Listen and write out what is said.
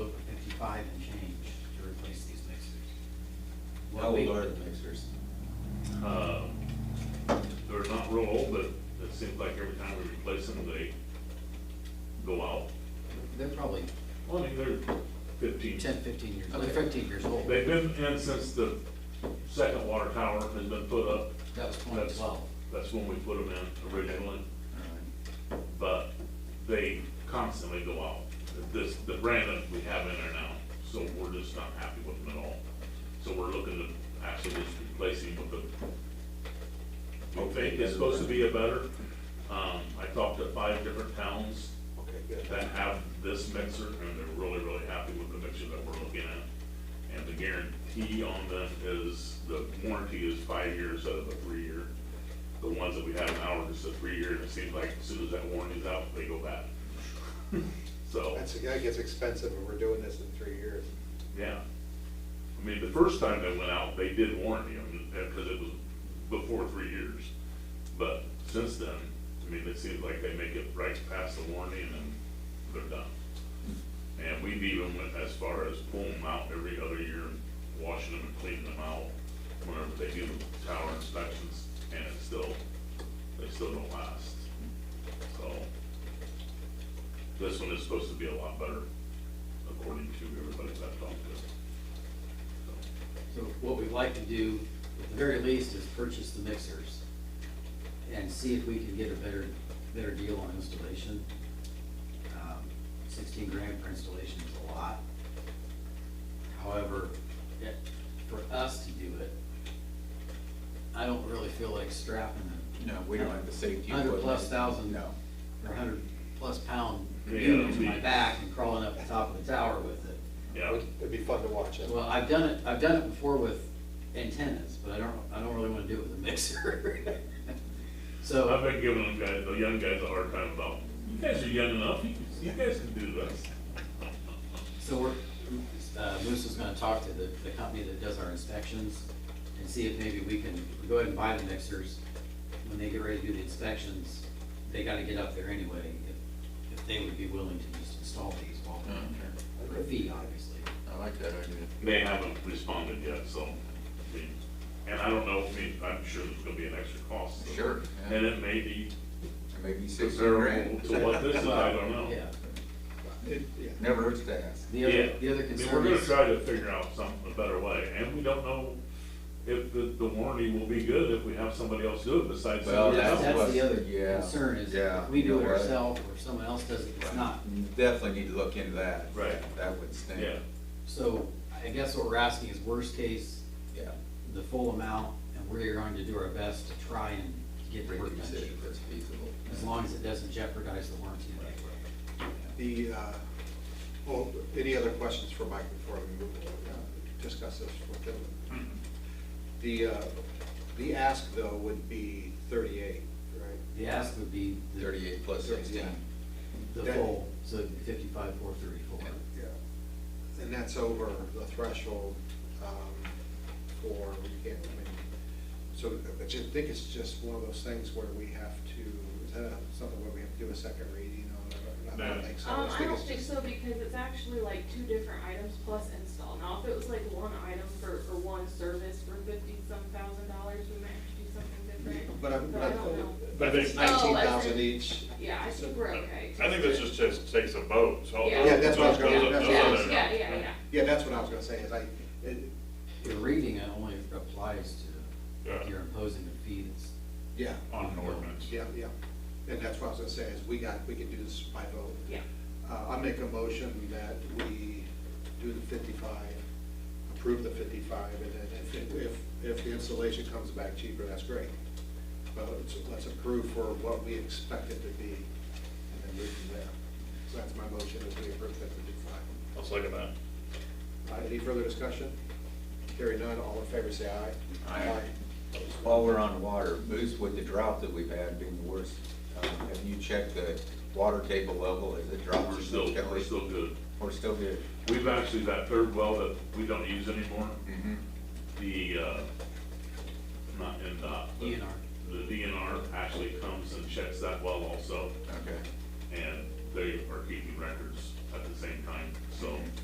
five and change to replace these mixers. How What we- old are the mixers? Uh, They're not real old, but it seems like every time we replace them, they go out. They're probably Well, I mean, they're fifteen. 10, 15 years, old. they're 15 years old. They've been in since the second water tower has been put up. That was That's- 2012. That's when we put them in originally, but they constantly go out. This, the brand that we have in there now, so we're just not happy with them at all. So we're looking to actually just replace them with the, we think it's supposed to be a better. Um, I talked to five different towns Okay, good. that have this mixer, and they're really, really happy with the mixer that we're looking at. And the guarantee on them is, the warranty is five years out of a three-year. The ones that we have now are just a three-year, and it seems like as soon as that warranty's out, they go bad. So, That's, that gets expensive, and we're doing this in three years. yeah. I mean, the first time they went out, they did warranty them, because it was before three years. But since then, I mean, it seems like they make it right past the warranty and then they're done. And we've even went as far as pulling them out every other year, and washing them and cleaning them out whenever they do the tower inspections, and it's still, they still don't last. So, this one is supposed to be a lot better, according to everybody that I've talked to. So what we'd like to do, at the very least, is purchase the mixers and see if we can get a better, better deal on installation. Um, Sixteen grand for installation is a lot. However, it- for us to do it, I don't really feel like strapping them. No, we don't have the safety Hundred plus equipment. thousand. No. Or hundred plus pound Yeah, unit to we- my back and crawling up the top of the tower with it. Yeah, It'd be fun to watch it. Well, I've done it, I've done it before with antennas, but I don't, I don't really wanna do it with a mixer. I've So, been giving them guys, the young guys a hard time about, you guys are young enough, you, can- you guys can do this. so we're, uh, Moose is gonna talk to the, the company that does our inspections and see if maybe we can go ahead and buy the mixers. When they get ready to do the inspections, they gotta get up there anyway, if, if they would be willing to just install these while they're in there. For a fee, obviously. I like that idea. They haven't responded yet, so, I mean, and I don't know, I mean, I'm sure there's gonna be an extra cost. so- Sure, yeah. And it may be Maybe six comparable grand. to what this is, I don't know. Yeah. It- yeah. Never hurts to ask. The other, Yeah. the other I mean, concern We're gonna is, try to figure out some, a better way, and we don't know if the, the warranty will be good if we have somebody else do it besides Well, somebody that's, else. that's that's the what- other yeah, concern is, yeah, if we you do it know what? ourselves or if someone else does it, it's not Definitely need to look into that. Right. That would stink. Yeah, So I guess what we're asking is worst case, Yeah. the full amount, and we're going to do our best to try and get the work done Reduce it if cheaper, it's feasible. as long as it doesn't jeopardize the warranty. of the equipment. The, uh, well, any other questions for Mike before we move on, uh, discuss this with him? The, uh, the ask, though, would be thirty-eight, right? The ask would be the, Thirty-eight plus sixteen. the full, so fifty-five, four thirty-four. Yeah. And that's over the threshold um, for, we can't, I mean, so, but you think it's just one of those things where we have to, is that something where we have to do a second reading on it? or not? I don't think so. Um, just I don't it's think just- so, because it's actually like two different items plus install. Now, if it was like one item for, for one service for fifty-some thousand dollars, we might have to do something different. But I'm, but I I'm, don't know. Oh, but if it's I think- nineteen thousand each, Yeah, I think we're okay. I think this just takes, takes a vote, so. Yeah. Yeah, that's what I was gonna- Those are- that's those what I are was Yeah, there. yeah, yeah, yeah. yeah, that's what I was gonna say, is I, it, The reading it only applies to if Yeah. you're imposing a fee that's, yeah, On an ordinance. yeah, yeah. And that's what I was gonna say, is we got, we can do this by vote. Yeah. Uh, I make a motion that we do the fifty-five, approve the fifty-five, and then if, if, if the installation comes back cheaper, that's great. But let's, let's approve for what we expect it to be, and then move from there. So that's my motion, is we approve that fifty-five. I'll second that. All right, Any further discussion? Hearing none, all in favor, say aye. Aye. While we're on water, Moose, with the drought that we've had being the worst, um, have you checked the water table level? Has it dropped? we're still, we're still good. We're still good. We've actually, that third well that we don't use anymore, Mm-hmm. the, uh, not NDOT. but DNR. The DNR actually comes and checks that well also, Okay. Mm-hmm. and they are keeping records at the same time, so